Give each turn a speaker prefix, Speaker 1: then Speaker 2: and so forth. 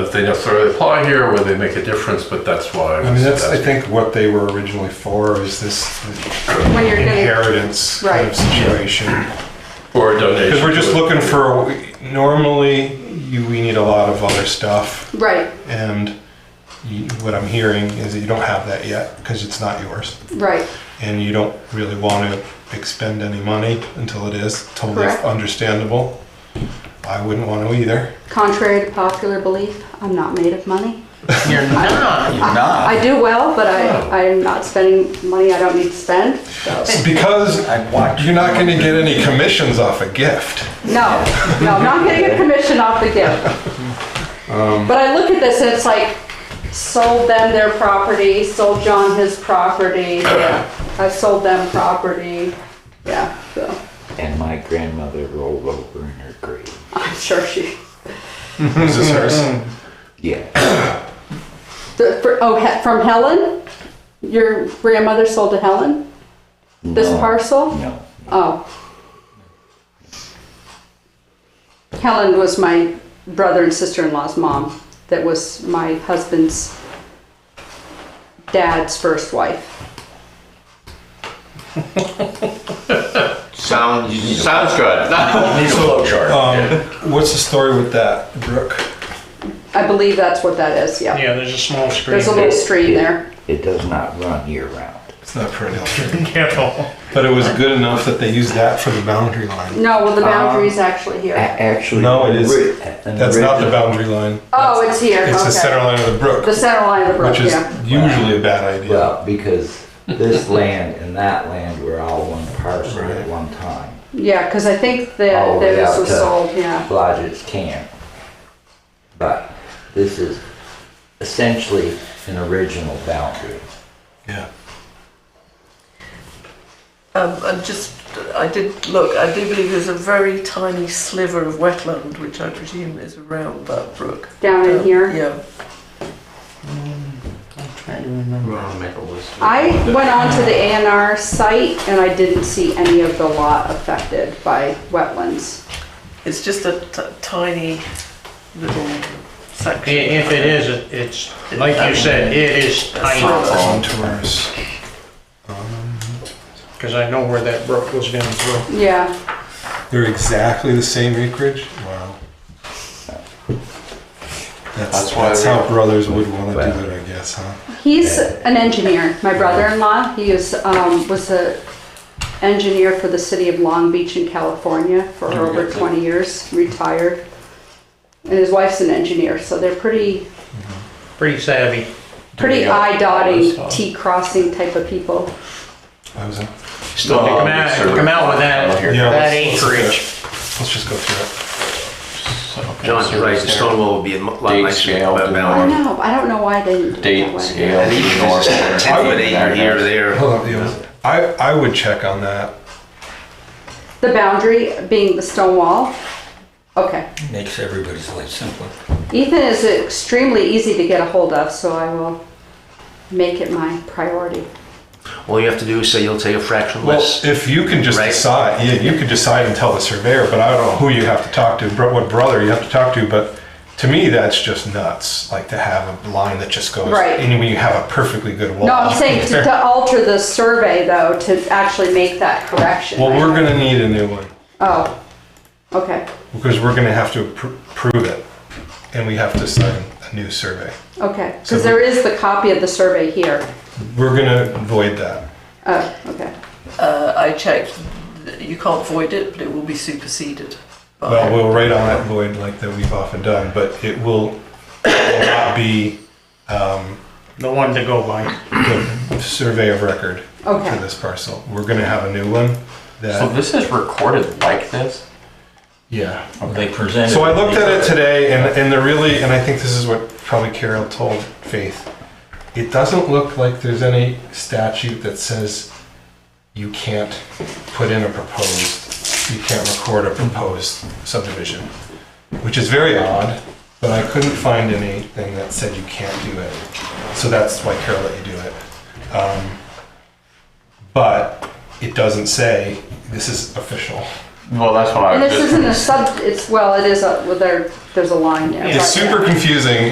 Speaker 1: if they necessarily apply here or whether they make a difference, but that's why.
Speaker 2: I mean, that's, I think what they were originally for is this
Speaker 3: When you're gonna,
Speaker 2: inheritance kind of
Speaker 3: Right.
Speaker 2: situation.
Speaker 1: Or a donation.
Speaker 2: Because we're just
Speaker 1: to a-
Speaker 2: looking for, normally, you, we need a lot of other stuff.
Speaker 3: right,
Speaker 2: And you, what I'm hearing is that you don't have that yet because it's not yours.
Speaker 3: right,
Speaker 2: And you don't really want to expend any money until it is totally
Speaker 3: Correct.
Speaker 2: understandable. I wouldn't want to either.
Speaker 3: contrary to popular belief, I'm not made of money.
Speaker 4: You're not.
Speaker 5: You're not.
Speaker 3: I do well, but
Speaker 1: Oh.
Speaker 3: I, I'm not spending money I don't need to spend.
Speaker 2: Because
Speaker 5: I watch.
Speaker 2: you're not going to get any commissions off a gift.
Speaker 3: No, no, I'm not getting a commission off the gift.
Speaker 5: Um.
Speaker 3: But I look at this and it's like, sold them their property, sold John his property, yeah, I sold them property, yeah, so,
Speaker 5: And my grandmother rolled over in her grave.
Speaker 3: I'm sure she,
Speaker 2: Is this hers?
Speaker 5: Yeah.
Speaker 3: the, for, oh, he- from Helen? Your grandmother sold to Helen, this
Speaker 5: No,
Speaker 3: parcel?
Speaker 5: No.
Speaker 3: Oh. Helen was my brother and sister-in-law's mom. That was my husband's dad's first wife.
Speaker 4: Sounds sounds good.
Speaker 1: Need a flow chart. yeah.
Speaker 2: Um, what's the story with that, Brooke?
Speaker 3: I believe that's what that is. Yeah.
Speaker 6: Yeah, there's a small screen.
Speaker 3: There's a little stream there.
Speaker 5: It does not run year round.
Speaker 2: It's not perennial.
Speaker 6: Careful.
Speaker 2: But it was good enough that they used that for the boundary line.
Speaker 3: No, well, the
Speaker 5: Uh,
Speaker 3: boundary's actually
Speaker 5: A-
Speaker 3: here.
Speaker 5: Actually.
Speaker 2: No, it is-
Speaker 5: ri- an
Speaker 2: That's not the
Speaker 5: origi-
Speaker 2: boundary line.
Speaker 3: Oh, it's here.
Speaker 2: It's
Speaker 3: okay.
Speaker 2: the center line of the brook,
Speaker 3: The center line of the brook.
Speaker 2: which is
Speaker 3: yeah.
Speaker 2: usually a bad idea.
Speaker 5: Well, because this land and that land were all one parcel
Speaker 2: Right.
Speaker 5: at one time.
Speaker 3: Yeah, because I think that
Speaker 5: All the way
Speaker 3: those
Speaker 5: out
Speaker 3: was
Speaker 5: to
Speaker 3: sold. Yeah.
Speaker 5: Lodge's camp. But this is essentially an original boundary.
Speaker 2: Yeah.
Speaker 7: Um, and just, I did look, I do believe there's a very tiny sliver of wetland, which I presume is around that brook.
Speaker 3: Down in
Speaker 7: Um,
Speaker 3: here.
Speaker 7: Yeah.
Speaker 4: Trying to remember. make a list.
Speaker 3: I went on to the A and R site and I didn't see any of the lot affected by wetlands.
Speaker 7: It's just a t- tiny little
Speaker 6: I-
Speaker 7: section.
Speaker 6: If it is, it- it's, like you said, it is tiny,
Speaker 2: Contours.
Speaker 6: because I know where that brook was going through.
Speaker 3: Yeah,
Speaker 2: They're exactly the same acreage? Wow. That's,
Speaker 1: That's why
Speaker 2: that's
Speaker 1: we-
Speaker 2: how brothers would want to do it, I guess, huh?
Speaker 3: he's an engineer. My brother-in-law, he is um, was a engineer for the city of Long Beach in California for over 20 years, retired. And his wife's an engineer, so they're pretty
Speaker 6: Pretty savvy.
Speaker 3: pretty
Speaker 1: Yeah.
Speaker 3: eye dotting,
Speaker 6: Awesome.
Speaker 3: T crossing type of people.
Speaker 2: I was in.
Speaker 6: Still to come out, to come out with that,
Speaker 2: Yeah,
Speaker 6: that
Speaker 2: let's- let's do
Speaker 6: acreage.
Speaker 2: that. Let's just go through
Speaker 4: John, you're right. The stone wall would be a lot
Speaker 8: Date
Speaker 4: nicer than
Speaker 8: scale,
Speaker 4: that
Speaker 3: I don't
Speaker 4: mountain.
Speaker 3: know. I don't know why they didn't do it that
Speaker 8: date
Speaker 3: way.
Speaker 8: scale.
Speaker 4: And even if it's just a tenth of an acre here or
Speaker 2: it.
Speaker 4: there.
Speaker 2: Hold up, yeah. I, I would check on that.
Speaker 3: The boundary being the stone wall. Okay.
Speaker 9: Makes everybody's life simpler.
Speaker 3: Ethan is extremely easy to get a hold of, so I will make it my priority.
Speaker 4: All you have to do is say you'll take a fraction
Speaker 2: Well,
Speaker 4: less.
Speaker 2: if you can just
Speaker 4: Right.
Speaker 2: decide, yeah, you could decide and tell the surveyor, but I don't know who you have to talk to, bro- what brother you have to talk to, but to me, that's just nuts, like to have a line that just goes,
Speaker 3: Right.
Speaker 2: and when you have a perfectly good wall.
Speaker 3: No, I'm saying to, to alter the survey though, to actually make that correction.
Speaker 2: Well,
Speaker 3: right?
Speaker 2: we're gonna need a new one,
Speaker 3: Oh, okay,
Speaker 2: because we're gonna have to pr- prove it, and we have to sign a new survey.
Speaker 3: okay,
Speaker 2: So-
Speaker 3: because there is the copy of the survey here.
Speaker 2: We're gonna void that.
Speaker 3: Oh, okay,
Speaker 7: Uh, I checked, you can't void it, but it will be superseded. by-
Speaker 2: Well, we'll write on that void like that we've often done, but it will will not be
Speaker 6: The one to go by.
Speaker 2: the survey of record for
Speaker 3: okay.
Speaker 2: this parcel. We're gonna have a new one that.
Speaker 8: So this is recorded like this?
Speaker 2: Yeah.
Speaker 9: They presented.
Speaker 2: So I looked at it today, and, and the really, and I think this is what probably Carol told Faith. It doesn't look like there's any statute that says you can't put in a proposed, you can't record a proposed subdivision, which is very odd, but I couldn't find anything that said you can't do it. So that's why Carol let you do it. Um, but it doesn't say this is official.
Speaker 8: Well, that's what I
Speaker 3: And
Speaker 8: was
Speaker 3: this
Speaker 8: just.
Speaker 3: isn't a sub, it's, well, it is a, well, there, there's a line there.
Speaker 2: It's
Speaker 3: but-
Speaker 2: super confusing,